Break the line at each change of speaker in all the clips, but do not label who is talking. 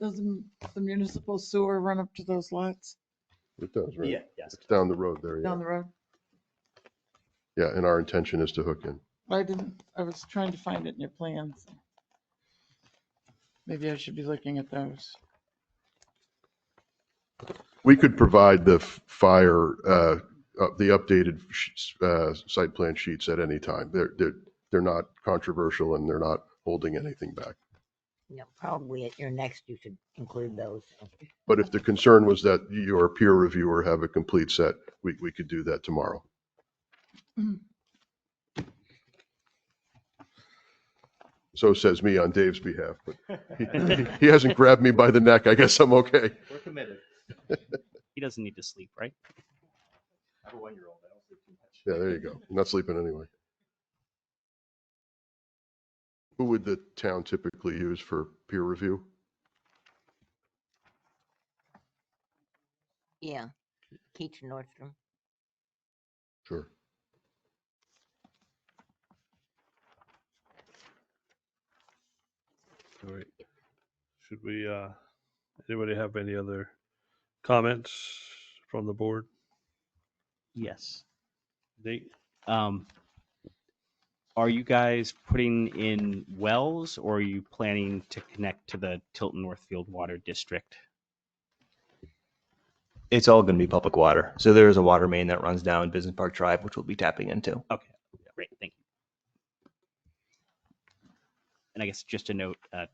Doesn't the municipal sewer run up to those lots
It does, right?
Yeah, yes.
It's down the road there, yeah.
down the road?
Yeah, and our intention is to hook in.
I didn't, I was trying to find it in your plans. Maybe I should be looking at those.
We could provide the f- fire, uh, uh, the updated sh- uh, site plan sheets at any time. They're, they're, they're not controversial and they're not holding anything back.
No, probably at your next, you should include those.
But if the concern was that your peer reviewer have a complete set, we, we could do that tomorrow.
Mm.
So says me on Dave's behalf, but he- he hasn't grabbed me by the neck. I guess I'm okay.
We're committed.
He doesn't need to sleep, right?
I have a one-year-old. I don't sleep too much.
Yeah, there you go. I'm Not sleeping anyway. Who would the town typically use for peer review?
Yeah, Keach and Nordstrom.
Sure.
All right. Should we, uh, anybody have any other comments from the board?
Yes.
Nate?
Um, are you guys putting in wells or are you planning to connect to the Tilton Northfield Water District?
it's all going to be public water. So there is a water main that runs down Business Park Drive, which we'll be tapping into.
Great, thank you. And I guess just a note, uh,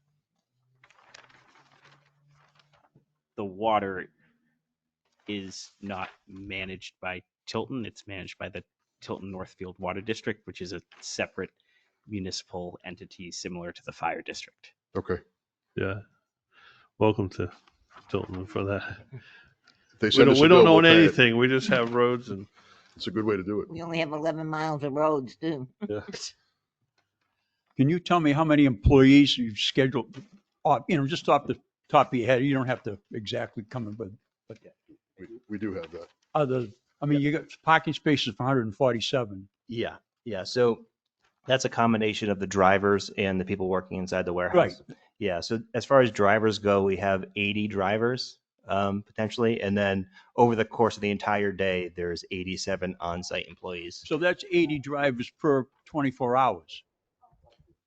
the water is not managed by Tilton, it's managed by the Tilton Northfield Water District, which is a separate municipal entity similar to the fire district.
Okay.
Yeah. Welcome to Tilton for that.
If They
We
send
don't,
us a
we
bill,
don't
we'll
own
pay it.
anything. We just have roads and
It's a good way to do it.
We only have 11 miles of roads, too.
Can you tell me how many employees you've scheduled, off- you know, just off the top of your head? You don't have to exactly come in, but
We, we do have that.
other, I mean, you got parking spaces for 147.
Yeah. Yeah. So that's a combination of the drivers and the people working inside the warehouse.
Right.
Yeah. So as far as drivers go, we have 80 drivers um, potentially. And then over the course of the entire day, there's 87 on site employees.
So that's 80 drivers per 24 hours.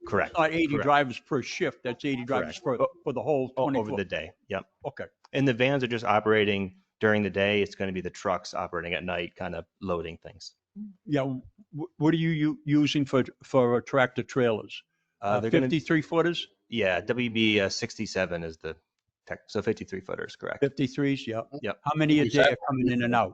Correct.
Not 80
Correct.
drivers per shift. That's 80 drivers for, for the whole
O- Over
24.
the day. Yep.
Okay.
And the vans are just operating during the day. It's going to be the trucks operating at night, kind of loading things.
Yeah. wh- What are you u- using for, for tractor trailers?
Uh,
Uh,
they're gonna-
53 footers,
Yeah, WB uh, 67 is the tech. So 53 footers, correct?
53s? Yeah.
Yep.
How many a
Is
day are coming in and out?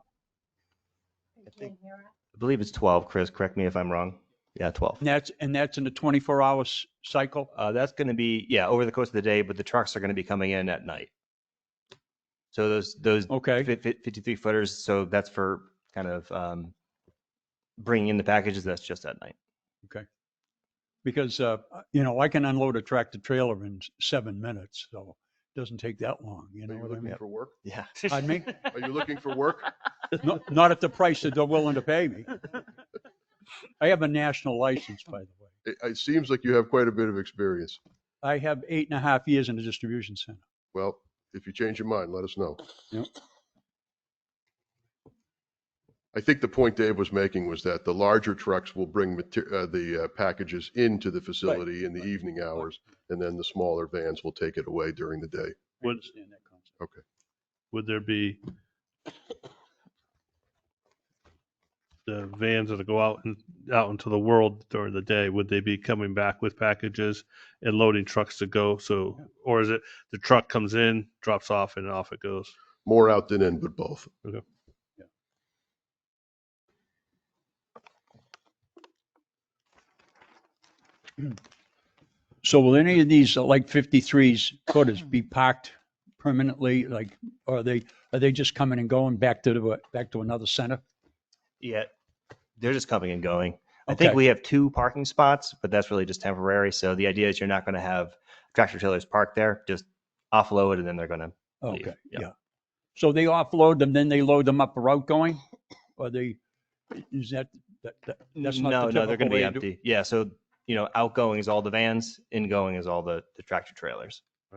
I believe it's 12, Chris. Correct me if I'm wrong. Yeah, 12.
And that's, and that's in a 24 hour s- cycle?
Uh, that's going to be, yeah, over the course of the day, but the trucks are going to be coming in at night. So those, those
Okay.
fif- fif- 53 footers, so that's for kind of um, bringing in the packages. That's just at night.
because uh, you know I can unload a tractor trailer in s- seven minutes, so it doesn't take that long. You
Are
know
you
what I
looking
mean?
for work?
Yeah.
Pardon me?
Are you looking for work?
not, not at the price that they're willing to pay me. I have a national license, by the way.
It, it seems like you have quite a bit of experience.
I have eight and a half years in the distribution center.
Well, if you change your mind, let us know.
Yep.
I think the point Dave was making was that the larger trucks will bring mater- uh, the uh, packages into the facility in the evening hours, and then the smaller vans will take it away during the day.
I
Would-
understand that concept.
would there be the vans that'll go out and out into the world during the day? Would they be coming back with packages and loading trucks to go? So, or is it the truck comes in, drops off, and off it goes?
More out than in, but both.
So will any of these, uh, like 53s, quarters be parked permanently? Like, or are they are they just coming and going back to the, back to another center?
Yeah, they're just coming and going. I think
Okay.
we have two parking spots, but that's really just temporary. So the idea is you're not going to have tractor trailers parked there, just offload and then they're going to leave.
Okay,
Yeah.
yeah. So they offload them, then they load them up for outgoing? Or they, is that, that, that- that's
no,
not the
no, they're
typical
going to be
way to do?
empty. Yeah, so you know, outgoing is all the vans, ingoing is all the, the tractor trailers.